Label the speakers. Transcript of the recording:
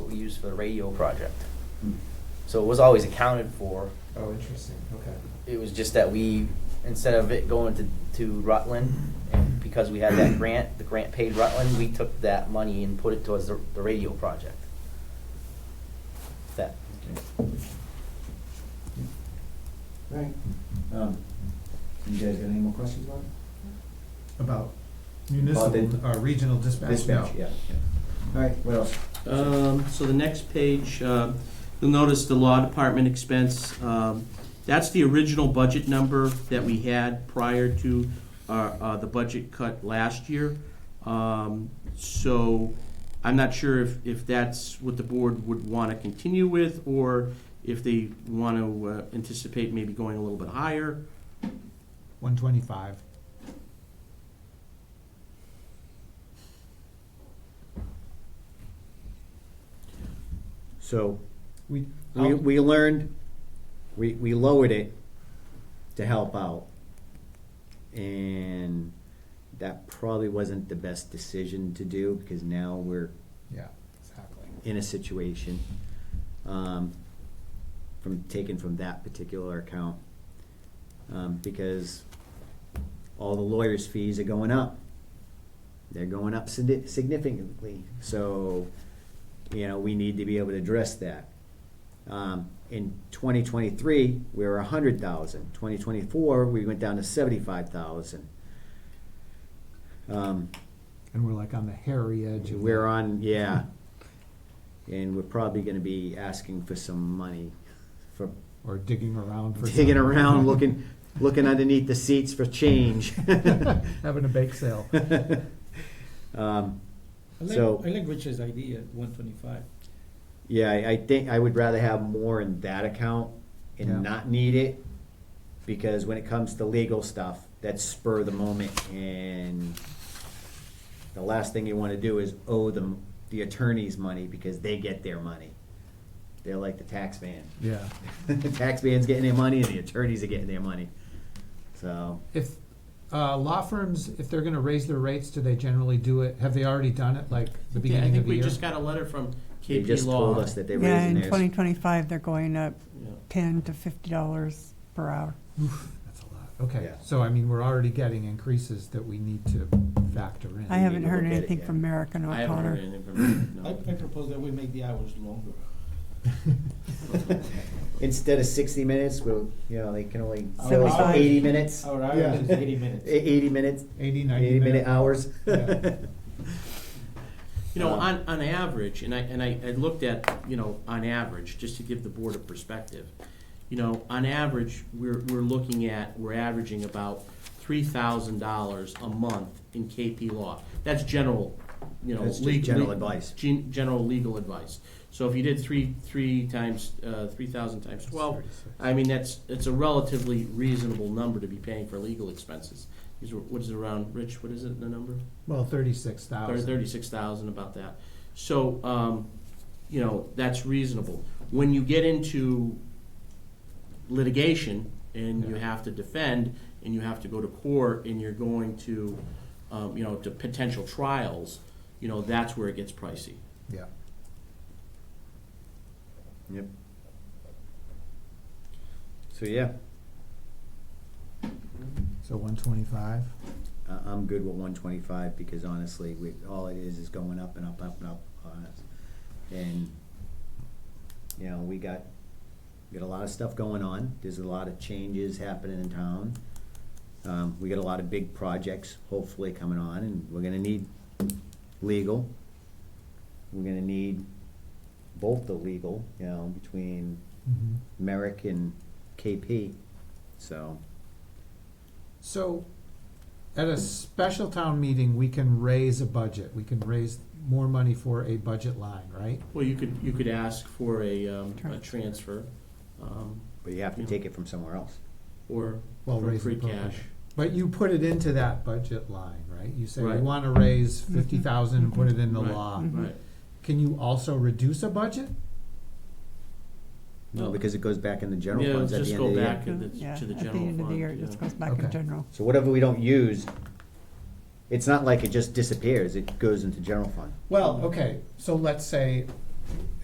Speaker 1: used for the radio project. So it was always accounted for.
Speaker 2: Hmm. Oh, interesting, okay.
Speaker 1: It was just that we, instead of it going to, to Rutland, and because we had that grant, the grant paid Rutland, we took that money and put it towards the, the radio project. That,
Speaker 2: Right. Um, you guys got any more questions about it?
Speaker 3: About
Speaker 2: About
Speaker 3: municipal, uh, regional dispatch?
Speaker 2: Dispatch,
Speaker 3: No.
Speaker 2: yeah, yeah. All right, what else?
Speaker 4: Um, so the next page, uh, you'll notice the law department expense, um, that's the original budget number that we had prior to, uh, uh, the budget cut last year. Um, so I'm not sure if, if that's what the board would wanna continue with, or if they wanna uh, anticipate maybe going a little bit higher.
Speaker 3: One twenty-five.
Speaker 5: So,
Speaker 3: We,
Speaker 5: we, we learned, we, we lowered it to help out. And that probably wasn't the best decision to do, because now we're
Speaker 3: yeah, exactly.
Speaker 5: in a situation, um, from, taken from that particular account. Um, because all the lawyers' fees are going up. They're going up signi- significantly, so, you know, we need to be able to address that. Um, in twenty twenty-three, we were a hundred thousand, twenty twenty-four, we went down to seventy-five thousand. Um,
Speaker 3: And we're like on the hairy edge of.
Speaker 5: we're on, yeah. And we're probably gonna be asking for some money for
Speaker 3: Or digging around for.
Speaker 5: digging
Speaker 3: some-
Speaker 5: around, looking, looking underneath the seats for change.
Speaker 3: Having a bake sale.
Speaker 5: Um,
Speaker 6: I like,
Speaker 5: So-
Speaker 6: I like Richard's idea at one twenty-five.
Speaker 5: Yeah, I, I think I would rather have more in that account
Speaker 3: Yeah.
Speaker 5: and not need it. Because when it comes to legal stuff, that's spur of the moment and the last thing you wanna do is owe them the attorneys money because they get their money. They're like the tax man.
Speaker 3: Yeah.
Speaker 5: the tax man's getting their money and the attorneys are getting their money. So,
Speaker 3: If, uh, law firms, if they're gonna raise their rates, do they generally do it? Have they already done it, like the
Speaker 4: Yeah, I
Speaker 3: beginning of
Speaker 4: think
Speaker 3: the
Speaker 4: we
Speaker 3: year?
Speaker 4: just got a letter from
Speaker 5: they
Speaker 4: KP
Speaker 5: just
Speaker 4: Law.
Speaker 5: told us that they're
Speaker 7: Yeah,
Speaker 5: raising
Speaker 7: in twenty
Speaker 5: theirs.
Speaker 7: twenty-five, they're going up
Speaker 4: Yeah.
Speaker 7: ten to fifty dollars per hour.
Speaker 3: That's a lot. Okay,
Speaker 5: Yeah.
Speaker 3: so I mean, we're already getting increases that we need to factor in.
Speaker 7: I
Speaker 5: need
Speaker 7: haven't
Speaker 5: to
Speaker 7: heard
Speaker 5: look at it,
Speaker 7: anything
Speaker 5: yeah.
Speaker 7: from Merrick and
Speaker 4: I haven't heard
Speaker 7: O'Connor.
Speaker 4: anything from them,
Speaker 6: I, I
Speaker 4: no.
Speaker 6: propose that we make the hours longer.
Speaker 5: Instead of sixty minutes, we'll, you know, they can only
Speaker 6: Our
Speaker 5: fill us for
Speaker 6: hours-
Speaker 5: eighty minutes.
Speaker 6: Our
Speaker 3: Yeah.
Speaker 6: hours is eighty minutes.
Speaker 5: Eh, Eighty minutes,
Speaker 3: Eighty, ninety
Speaker 5: eighty minute hours.
Speaker 3: Yeah.
Speaker 4: You know,
Speaker 5: Um,
Speaker 4: on, on average, and I, and I, I looked at, you know, on average, just to give the board a perspective. You know, on average, we're, we're looking at, we're averaging about three thousand dollars a month in KP law. That's general, you know.
Speaker 5: That's just
Speaker 4: leg-
Speaker 5: general
Speaker 4: le-
Speaker 5: advice.
Speaker 4: gen- General legal advice. So if you did three, three times, uh, three thousand times twelve, I mean, that's, it's a relatively reasonable number to be paying for legal expenses. These were, what is it around, Rich, what is it, the number?
Speaker 3: Well, thirty-six
Speaker 4: Thir-
Speaker 3: thousand.
Speaker 4: thirty-six thousand, about that. So, um, you know, that's reasonable. When you get into litigation and you
Speaker 3: Yeah.
Speaker 4: have to defend and you have to go to court and you're going to, um, you know, to potential trials, you know, that's where it gets pricey.
Speaker 3: Yeah.
Speaker 5: Yep. So, yeah,
Speaker 3: So one twenty-five.
Speaker 5: I, I'm good with one twenty-five because honestly, we, all it is is going up and up, up and up on us. And, you know, we got, got a lot of stuff going on. There's a lot of changes happening in town. Um, we got a lot of big projects hopefully coming on and we're gonna need legal. We're gonna need both the legal, you know, between
Speaker 4: Mm-hmm.
Speaker 5: Merrick and KP, so.
Speaker 3: So, at a special town meeting, we can raise a budget, we can raise more money for a budget line, right?
Speaker 4: Well, you could, you could ask for a, um, a
Speaker 7: Transfer.
Speaker 4: transfer, um,
Speaker 5: But you have to take it from somewhere else.
Speaker 4: or
Speaker 3: Well,
Speaker 4: from
Speaker 3: raise
Speaker 4: free
Speaker 3: and appropriate.
Speaker 4: cash.
Speaker 3: But you put it into that budget line, right? You say we
Speaker 4: Right.
Speaker 3: wanna raise fifty thousand and put it in the
Speaker 4: Right.
Speaker 3: law.
Speaker 7: Mhm.
Speaker 4: Right.
Speaker 3: Can you also reduce a budget?
Speaker 5: No,
Speaker 4: Well-
Speaker 5: because it goes back in the general
Speaker 4: Yeah,
Speaker 5: funds at
Speaker 4: just
Speaker 5: the end of
Speaker 4: go
Speaker 5: the
Speaker 4: back
Speaker 5: year.
Speaker 4: to the,
Speaker 7: Yeah,
Speaker 4: to the general fund.
Speaker 7: at the end of the year, it
Speaker 4: yeah.
Speaker 7: just goes back
Speaker 3: Okay.
Speaker 7: in general.
Speaker 5: So whatever we don't use, it's not like it just disappears, it goes into general fund.
Speaker 3: Well, okay, so let's say